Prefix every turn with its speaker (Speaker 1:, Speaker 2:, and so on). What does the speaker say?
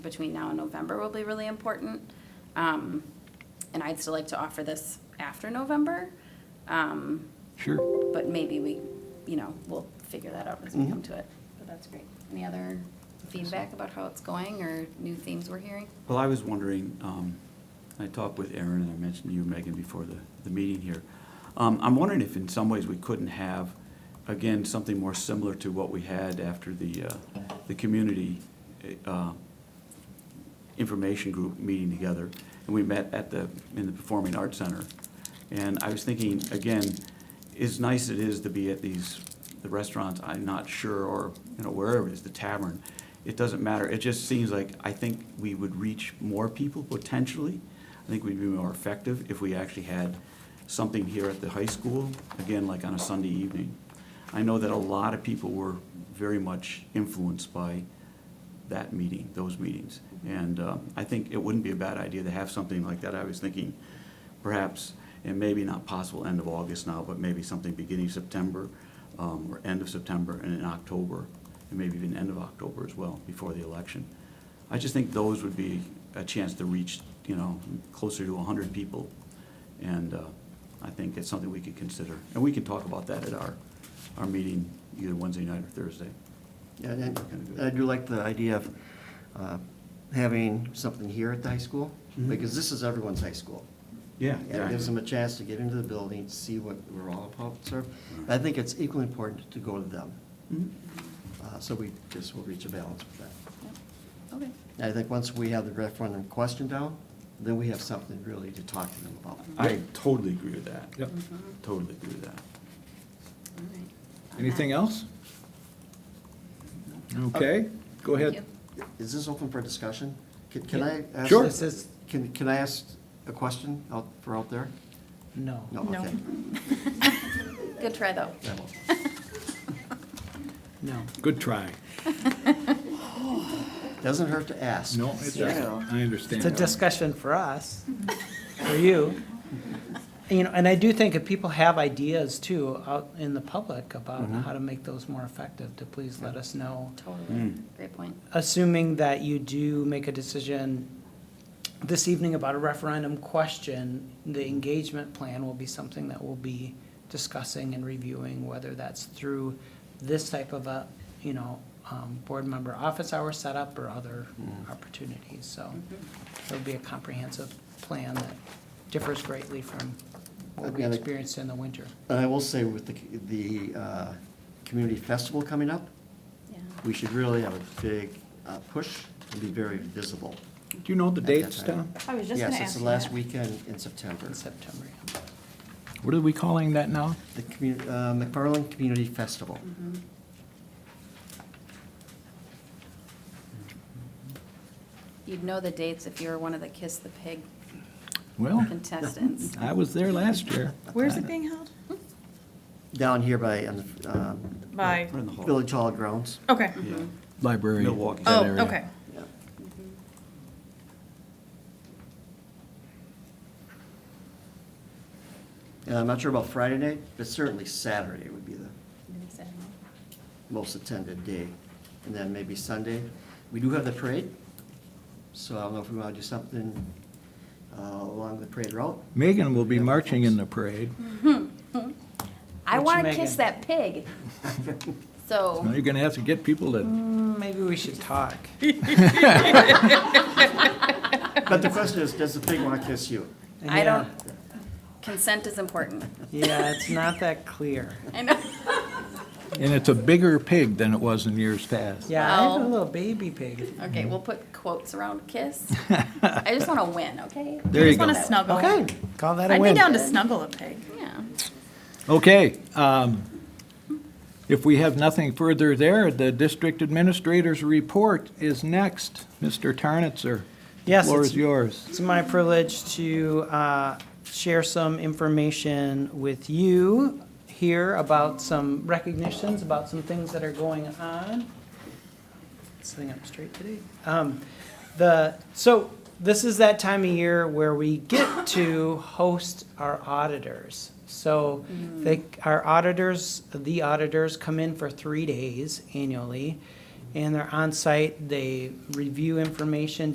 Speaker 1: between now and November will be really important. Um, and I'd still like to offer this after November, um,
Speaker 2: Sure.
Speaker 1: but maybe we, you know, we'll figure that out as we come
Speaker 3: Mm-hmm.
Speaker 1: to it. But that's great. Any other feedback about how it's going or new themes we're hearing?
Speaker 2: Well, I was wondering, um, I talked with Aaron, and I mentioned you, Megan, before the, the meeting here. Um, I'm wondering if in some ways we couldn't have, again, something more similar to what we had after the, uh, the community uh, information group meeting together, and we met at the, in the Performing Arts Center. And I was thinking, again, as nice it is to be at these, the restaurants, I'm not sure, or, you know, wherever it is, the tavern, it doesn't matter. It just seems like, I think we would reach more people potentially. I think we'd be more effective if we actually had something here at the high school, again, like on a Sunday evening. I know that a lot of people were very much influenced by that meeting, those meetings. And uh, I think it wouldn't be a bad idea to have something like that. I was thinking perhaps, and maybe not possible end of August now, but maybe something beginning of September um, or end of September and in October, and maybe even end of October as well, before the election. I just think those would be a chance to reach, you know, closer to 100 people. And uh, I think it's something we could consider. And we can talk about that at our, our meeting either Wednesday night or Thursday.
Speaker 3: Yeah, and I I do like the idea of uh, having something here at the high school,
Speaker 2: Mhm.
Speaker 3: because this is everyone's high school.
Speaker 2: Yeah.
Speaker 3: And it gives them a chance to get into the building, see what we're all about, sir.
Speaker 2: Mm-hmm.
Speaker 3: I think it's equally important to go to them,
Speaker 2: Mhm.
Speaker 3: uh, so we just will reach a balance with that.
Speaker 1: Yep. Okay,
Speaker 3: And I think once we have the referendum question down, then we have something really to talk to them about.
Speaker 2: I totally agree with that.
Speaker 4: Yep.
Speaker 2: Totally agree with that.
Speaker 1: all right. Uh,
Speaker 4: Anything else? Okay, go
Speaker 1: Thank
Speaker 4: ahead.
Speaker 1: you.
Speaker 3: Is this open for discussion? Can- Can I ask?
Speaker 4: Sure.
Speaker 3: this- Can, can I ask a question out, for out there?
Speaker 5: No.
Speaker 3: No,
Speaker 1: No.
Speaker 3: okay.
Speaker 1: Good try, though.
Speaker 3: I will.
Speaker 5: No.
Speaker 4: Good try.
Speaker 3: Doesn't hurt to ask.
Speaker 4: No, it doesn't. I understand.
Speaker 5: It's a discussion for us, for you. You know, and I do think if people have ideas too, out in the public about how to make those more effective, to please let us know.
Speaker 1: Totally,
Speaker 2: Mm.
Speaker 1: great point.
Speaker 5: Assuming that you do make a decision this evening about a referendum question, the engagement plan will be something that we'll be discussing and reviewing, whether that's through this type of a, you know, um, board member office hour setup or other opportunities, so it'll be a comprehensive plan that differs greatly from what we
Speaker 3: Okay.
Speaker 5: experienced in the winter.
Speaker 3: And I will say with the, the uh, community festival coming up,
Speaker 1: Yeah.
Speaker 3: we should really have a big uh, push and be very visible.
Speaker 4: Do you know the dates, Tom?
Speaker 6: I was just gonna ask
Speaker 3: Yes, it's the
Speaker 6: you
Speaker 3: last
Speaker 6: that.
Speaker 3: weekend in September.
Speaker 5: in September.
Speaker 4: What are we calling that now?
Speaker 3: The commu- uh, McFarland Community Festival.
Speaker 6: Mm-hmm.
Speaker 1: You'd know the dates if you were one of the Kiss the Pig
Speaker 4: Well,
Speaker 1: contestants.
Speaker 4: I was there last year. Uh,
Speaker 6: Where's it being held?
Speaker 3: Down here by, on the, um,
Speaker 6: By,
Speaker 2: Right in the hall.
Speaker 3: Village Hall grounds.
Speaker 6: okay.
Speaker 2: Yeah.
Speaker 4: Library.
Speaker 2: Milwaukee.
Speaker 6: Oh,
Speaker 4: that area.
Speaker 6: okay.
Speaker 3: Yeah. Mm-hmm. And Uh, I'm not sure about Friday night, but certainly Saturday would be the most attended day. And then maybe Sunday. We do have the parade, so I don't know if we want to do something uh, along the parade route.
Speaker 4: Megan will be marching in the parade.
Speaker 1: I
Speaker 5: Which
Speaker 1: want to
Speaker 5: Megan?
Speaker 1: kiss that pig. So,
Speaker 4: Now you're gonna have to get people to,
Speaker 5: Maybe we should talk.
Speaker 3: But the question is, does the pig want to kiss you?
Speaker 1: I don't, consent is important.
Speaker 5: Yeah, Yeah, it's not that clear.
Speaker 1: I know.
Speaker 4: and it's a bigger pig than it was in years past.
Speaker 5: Yeah, I have a
Speaker 1: Oh.
Speaker 5: little baby pig.
Speaker 1: Okay, we'll put quotes around kiss. I just want to win, okay?
Speaker 4: There you
Speaker 6: Just wanna
Speaker 4: go.
Speaker 6: snuggle.
Speaker 5: Okay, call that a
Speaker 6: I'd be
Speaker 5: win.
Speaker 6: down to snuggle a pig.
Speaker 1: Yeah.
Speaker 4: Okay, um, if we have nothing further there, the district administrator's report is next. Mr. Tarnitzer.
Speaker 5: Yes,
Speaker 4: Floor
Speaker 5: it's-
Speaker 4: is yours.
Speaker 5: It's my privilege to uh, share some information with you here about some recognitions, about some things that are going on. Sitting up straight today. Um, The, so this is that time of year where we get to host our auditors. So they, our auditors, the auditors come in for three days annually and they're on site. They review information,